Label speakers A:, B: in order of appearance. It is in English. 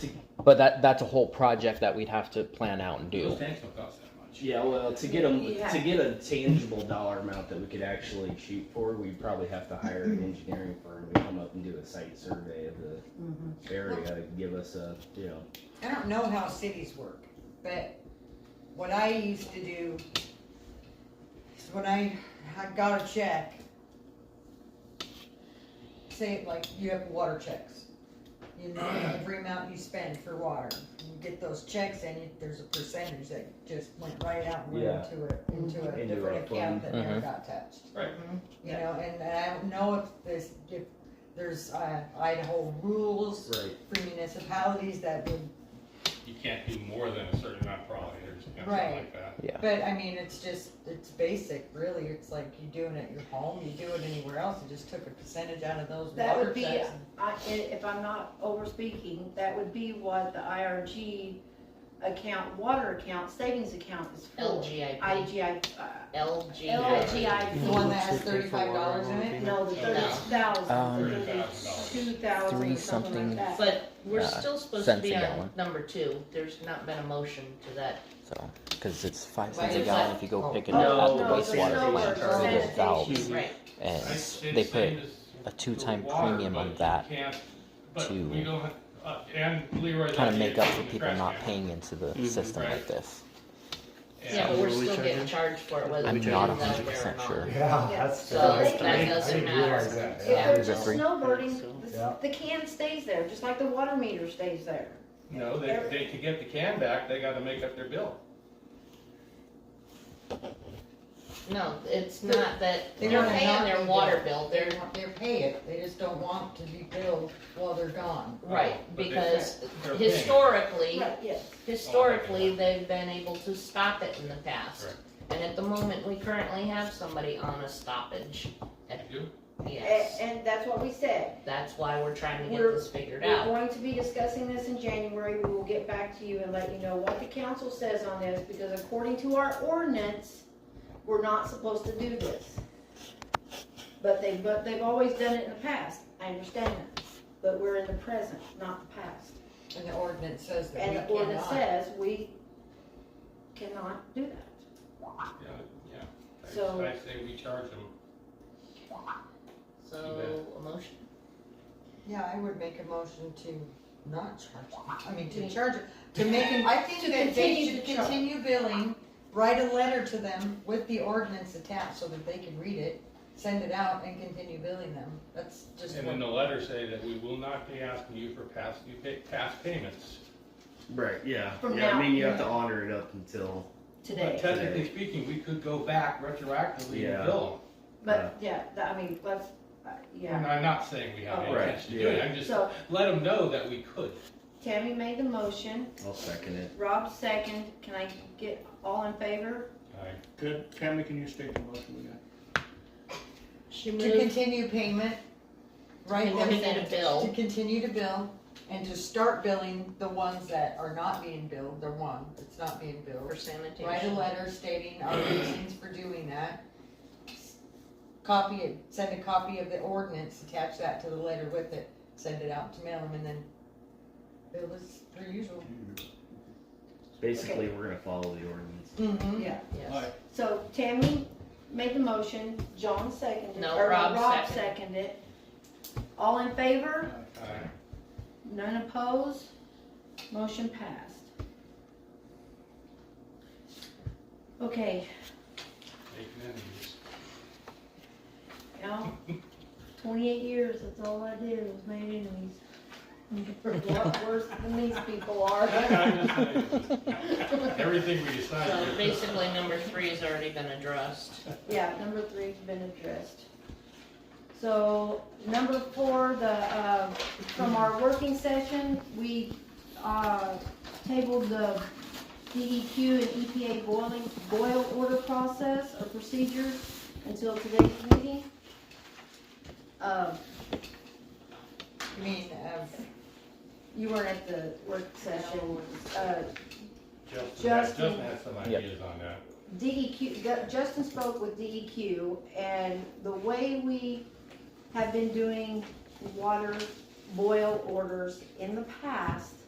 A: to,
B: But that that's a whole project that we'd have to plan out and do.
C: Those tanks don't cost that much.
A: yeah, well, to get them,
D: Yeah.
A: to get a tangible dollar amount that we could actually shoot for, we'd probably have to hire an engineering firm to come up and do a site survey of the
D: Mhm.
A: area to give us a, you know,
E: I don't know how cities work, but what I used to do is when I, I got a check, say like you have water checks. You know, every amount you spend for water, you get those checks and you- there's a percentage that just went right out and went
A: Yeah.
E: into a, into
A: Into
E: a
A: a
E: different
A: fund.
E: account that never
B: Mhm.
E: got touched.
C: Right.
D: Mm-hmm.
E: You know, and I don't know if this, if there's uh, Idaho rules
A: right,
E: for municipalities that would
C: You can't do more than a certain amount probably, or something like
E: Right.
C: that.
E: But I mean, it's just, it's basic, really. It's like you doing it at your home, you do it anywhere else. You just took a percentage out of those
D: That
E: water
D: would be-
E: checks.
D: I, i- if I'm not over speaking, that would be what the IRG account, water account, savings account is for.
F: LGIP.
D: IGI, uh,
E: The
D: LGIP,
E: one that has thirty-five dollars in it.
D: no, the thirty
B: Um,
D: thousand, thirty-two thousand,
B: Three
D: something
B: something.
D: like that.
F: But we're
B: Uh,
F: still supposed to
B: cents
F: be
B: a
F: on
B: gallon.
F: number two. There's not been a motion to that.
B: So because it's five
E: Why
B: cents a
E: is
B: gallon
E: that-
B: if you go
E: oh.
B: pick it
D: Oh,
B: up at the
D: no, there's
B: wastewater
D: no
B: plant,
D: more
B: so there's valves,
D: sanitation.
F: Right.
B: and they put a two-time premium on that to
C: uh,
B: kind of make up for people not paying into the
D: Mm-hmm.
G: Mhm.
B: system
C: Right.
B: like this.
F: Yeah, but
G: Were
F: we're
G: we
F: still getting
G: charging?
F: charged for it whether
B: I'm
F: we do it
B: not
F: out there or
B: 100%
F: not.
B: sure.
H: Yeah,
D: Yeah.
H: that's.
F: So
H: that's-
F: that
H: I didn't-
F: doesn't
H: I didn't realize
F: matter.
H: that,
D: If
H: yeah.
D: they're
B: Is it
D: just
B: three?
D: snowboarding,
G: So-
H: Yeah.
D: the- the can stays there, just like the water meter stays there.
C: No, they, they, to get the can back, they gotta make up their bill.
F: No, it's not that
E: They
F: they're
E: don't
F: paying
E: have
F: their
E: to
F: water
E: do-
F: bill.
E: They
F: They're
E: want, they pay it. They just don't want to be billed while they're gone.
F: right
C: But they-
F: because
C: they're paying.
F: historically,
D: Right, yes.
F: historically, they've been able to stop it in the past.
C: Correct.
F: And at the moment, we currently have somebody on a stoppage.
C: They do.
F: Yes,
D: And, and that's what we said.
F: that's why we're trying to get
D: We're-
F: this figured
D: We're
F: out.
D: going to be discussing this in January. We will get back to you and let you know what the council says on this, because according to our ordinance, we're not supposed to do this. But they, but they've always done it in the past. I understand that. But we're in the present, not the past.
E: And the ordinance says that
D: And
E: we
D: the ordinance
E: cannot.
D: says we cannot do that.
C: Yeah, yeah. I-
D: So-
C: I say we charge them.
F: So, a motion.
E: Yeah, I would make a motion to not charge them. I mean, to charge, it- to make them, I
D: To
E: think that they
D: continue
E: should
D: to charge.
E: continue billing, write a letter to them with the ordinance attached so that they can read it, send it out and continue billing them. That's just
C: And
E: what-
C: in the letter say that we will not be asking you for past, due pay, past payments.
A: right, yeah,
D: From
A: yeah, I mean,
D: now-
A: you have to honor it up until,
C: But
D: Today.
C: technically speaking, we could go back retroactively
A: Yeah.
C: and bill them.
D: But, yeah, that, I mean, let's, uh,
C: And
D: yeah.
C: I'm not saying we have any
A: Right,
C: intention to do it, I'm just,
D: So
C: let them know that we could.
D: Tammy made the motion.
A: I'll second it.
D: Rob second. Can I get all in favor?
G: Good, Tammy, can you state the motion we got?
F: She
E: To continue payment, right?
F: And then a bill.
E: To continue to bill and to start billing the ones that are not being billed, the one that's not being
F: for
E: billed.
F: sanitation.
E: Write a letter stating our reasons for doing that. Copy it, send a copy of the ordinance, attach that to the letter with it, send it out to mail them and then bill as per usual.
A: Basically, we're gonna follow the ordinance.
E: Mm-hmm.
D: Yeah.
F: Yes.
D: So Tammy made the motion, John seconded.
F: No,
D: or
F: Rob
D: Rob
F: seconded.
D: seconded. All in favor?
C: Aye.
D: None opposed? Motion passed. Okay, now, twenty-eight years, that's all I did was made enemies. A lot worse than these people are.
C: Everything we
F: So
C: decide.
F: basically, number three has already been addressed.
D: Yeah, number three's been addressed. So, number four, the, uh, from our working session, we, uh, tabled the DEQ and EPA boiling, boil order process or procedure until today's meeting. Uh,
E: I mean, uh,
D: you were at the work session, uh, Justin.
C: Justin has some ideas on that.
D: DEQ, E Ju- Justin spoke with DEQ, and the way we have been doing water boil orders in the past